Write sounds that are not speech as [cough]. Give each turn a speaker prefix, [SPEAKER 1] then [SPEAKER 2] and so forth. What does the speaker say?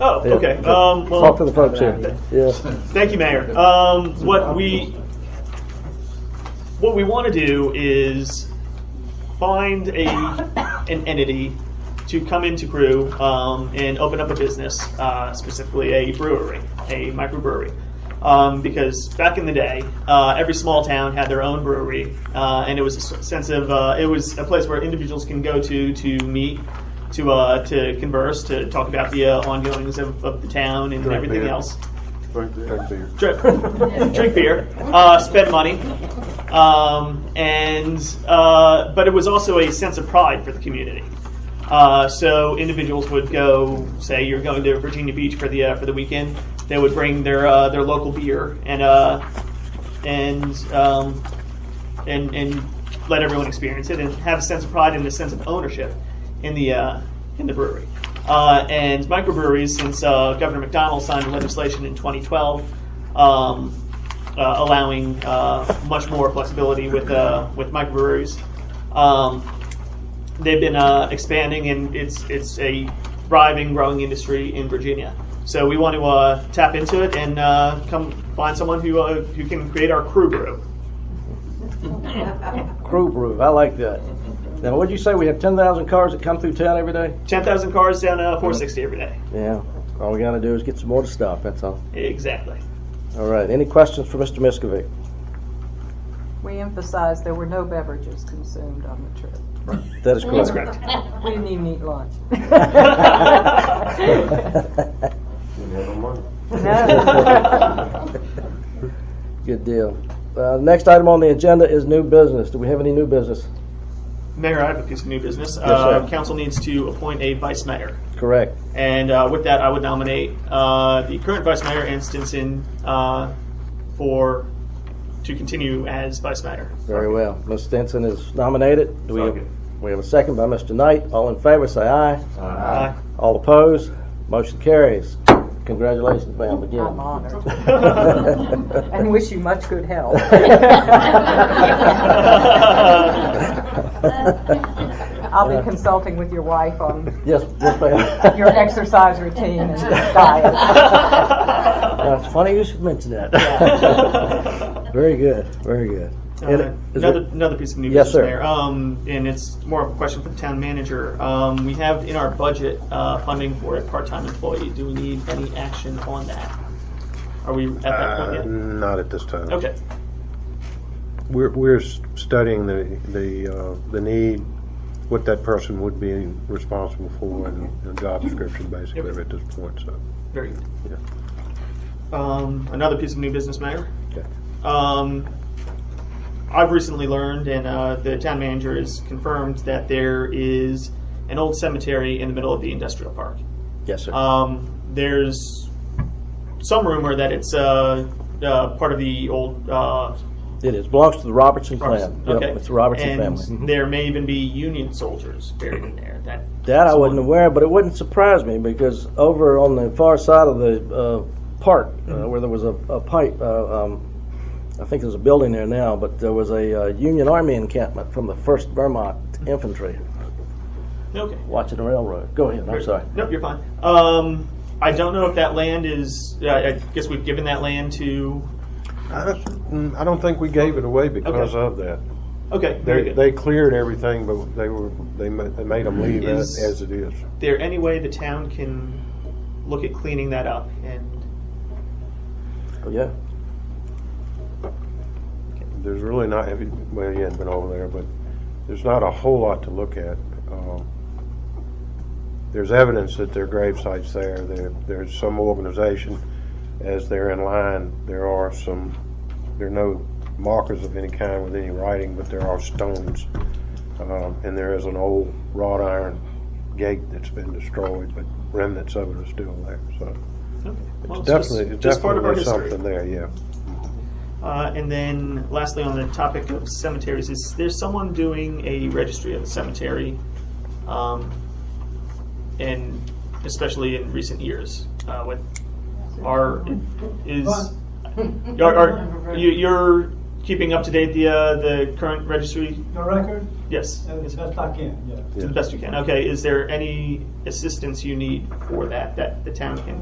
[SPEAKER 1] Oh,
[SPEAKER 2] Yeah.
[SPEAKER 1] okay. Um, well,
[SPEAKER 2] Talk to the folks here. Yeah.
[SPEAKER 1] Thank you, Mayor. Um, what we, what we want to do is find a, an entity to come into Crew um, and open up a business, uh, specifically a brewery, a microbrewery. Um, because back in the day, uh, every small town had their own brewery, uh, and it was a s- sense of uh, it was a place where individuals can go to to meet, to uh, to converse, to talk about the uh, ongoings of, of the town and everything
[SPEAKER 3] beer.
[SPEAKER 1] else
[SPEAKER 3] Thank you.
[SPEAKER 1] drink, drink [laughs] beer, uh, spend money, um, and uh, but it was also a sense of pride for the community. Uh, so individuals would go, say, you're going to Virginia Beach for the uh, for the weekend. They would bring their uh, their local beer and uh, and um, and and let everyone experience it and have a sense of pride and a sense of ownership in the uh, in the brewery. Uh, and microbreweries, since uh, Governor McDonald signed legislation in 2012 um, uh, allowing uh, much more flexibility with uh, with microbreweries, um, they've been uh, expanding and it's it's a thriving, growing industry in Virginia. So we want to uh, tap into it and uh, come find someone who uh, who can create our crew brew.
[SPEAKER 2] Crew brew, I like that. Now, what'd you say, we have ten thousand cars that come through town every day?
[SPEAKER 1] 10,000 cars down uh, 460 every day.
[SPEAKER 2] Yeah, all we gotta do is get some more stuff, that's all.
[SPEAKER 1] Exactly.
[SPEAKER 2] All right, any questions for Mr. Miskovic?
[SPEAKER 4] We emphasized there were no beverages consumed on the trip.
[SPEAKER 2] That is
[SPEAKER 1] That's
[SPEAKER 2] correct.
[SPEAKER 1] correct.
[SPEAKER 4] We didn't even eat [laughs] lunch.
[SPEAKER 3] We have no money.
[SPEAKER 2] [laughs] Good deal. Uh, next item on the agenda is new business. Do we have any new business?
[SPEAKER 1] Mayor, I have a piece of new business.
[SPEAKER 2] sir.
[SPEAKER 1] uh, council needs to appoint a vice mayor.
[SPEAKER 2] Correct.
[SPEAKER 1] And uh, with that, I would nominate uh, the current vice mayor, Ann Stinson, uh, for to continue as vice mayor.
[SPEAKER 2] Very well. Ms. Stinson is nominated. Do we have,
[SPEAKER 1] Second.
[SPEAKER 2] we have a second by Mr. Knight. All in favor, say aye.
[SPEAKER 1] Aye.
[SPEAKER 2] All opposed? Motion carries. Congratulations, ma'am, again.
[SPEAKER 4] [laughs] I'm [laughs] honored
[SPEAKER 2] [laughs]
[SPEAKER 4] and wish you much good health. I'll be consulting with your wife on
[SPEAKER 2] Yes, yes, ma'am.
[SPEAKER 4] your exercise routine and
[SPEAKER 1] [laughs]
[SPEAKER 2] [laughs]
[SPEAKER 4] diet.
[SPEAKER 2] Now,
[SPEAKER 1] Uh,
[SPEAKER 2] it's funny you should mention that. [laughs] Very good, very good. And
[SPEAKER 1] Uh,
[SPEAKER 2] it- is
[SPEAKER 1] Another,
[SPEAKER 2] it-
[SPEAKER 1] another piece of new
[SPEAKER 2] Yes,
[SPEAKER 1] business
[SPEAKER 2] sir.
[SPEAKER 1] there, um, and it's more of a question for the town manager. Um, we have in our budget, uh, funding for a part-time employee. Do we need any action on that? Are we at that
[SPEAKER 3] Uh,
[SPEAKER 1] point
[SPEAKER 3] Not at this time.
[SPEAKER 1] yet? Okay,
[SPEAKER 3] We're, we're s- studying the, the, uh, the need, what that person would be responsible for and, and job description basically
[SPEAKER 1] Yep.
[SPEAKER 3] at this point, so.
[SPEAKER 1] very good. Um, another piece of new business, Mayor.
[SPEAKER 3] Okay.
[SPEAKER 1] Um, I've recently learned, and uh, the town manager has confirmed that there is an old cemetery in the middle of the industrial park.
[SPEAKER 2] Yes, sir.
[SPEAKER 1] Um, there's some rumor that it's uh, uh, part of the old uh,
[SPEAKER 2] It is, belongs to the Robertson clan. Yep,
[SPEAKER 1] okay.
[SPEAKER 2] It's the Robertson
[SPEAKER 1] and
[SPEAKER 2] family. Mhm.
[SPEAKER 1] There may even be Union soldiers buried in there. That
[SPEAKER 2] That I wasn't
[SPEAKER 1] someone-
[SPEAKER 2] aware, but it wouldn't surprise me because over on the far side of the uh, park, uh, where there was a, a pipe, uh, um, I think there's a building there now, but there was a uh, Union Army encampment from the First Vermont Infantry
[SPEAKER 1] Okay.
[SPEAKER 2] watching the railroad. Go ahead. I'm sorry.
[SPEAKER 1] Nope, you're fine. Um, I don't know if that land is. Uh, I guess we've given that land to.
[SPEAKER 3] I don't, mm, I don't think we gave it away because
[SPEAKER 1] Okay.
[SPEAKER 3] of that.
[SPEAKER 1] Okay, very
[SPEAKER 3] They,
[SPEAKER 1] good.
[SPEAKER 3] they cleared everything, but they were, they ma- they made them leave it
[SPEAKER 1] Is-
[SPEAKER 3] as it is.
[SPEAKER 1] there any way the town can look at cleaning that up and
[SPEAKER 2] Oh, Yeah.
[SPEAKER 3] There's really not, if you- well, you hadn't been over there, but there's not a whole lot to look at. Um, There's evidence that there are grave sites there. There, there's some organization, as they're in line, there are some, there are no markers of any kind with any writing, but there are stones. Um, And there is an old wrought iron gate that's been destroyed, but remnants of it are still there, so.
[SPEAKER 1] okay. Well,
[SPEAKER 3] It's
[SPEAKER 1] just-
[SPEAKER 3] definitely, it's
[SPEAKER 1] just part of our
[SPEAKER 3] definitely
[SPEAKER 1] history.
[SPEAKER 3] something there, yeah.
[SPEAKER 1] Uh, and then, lastly, on the topic of cemeteries, is there's someone doing a registry of the cemetery, um, and especially in recent years, uh, with our is are, are you, your keeping up to date the uh, the current registry?
[SPEAKER 5] Your record,
[SPEAKER 1] Yes,
[SPEAKER 5] as best I can, yeah.
[SPEAKER 1] to the best you can. Okay, is there any assistance you need for that that the town can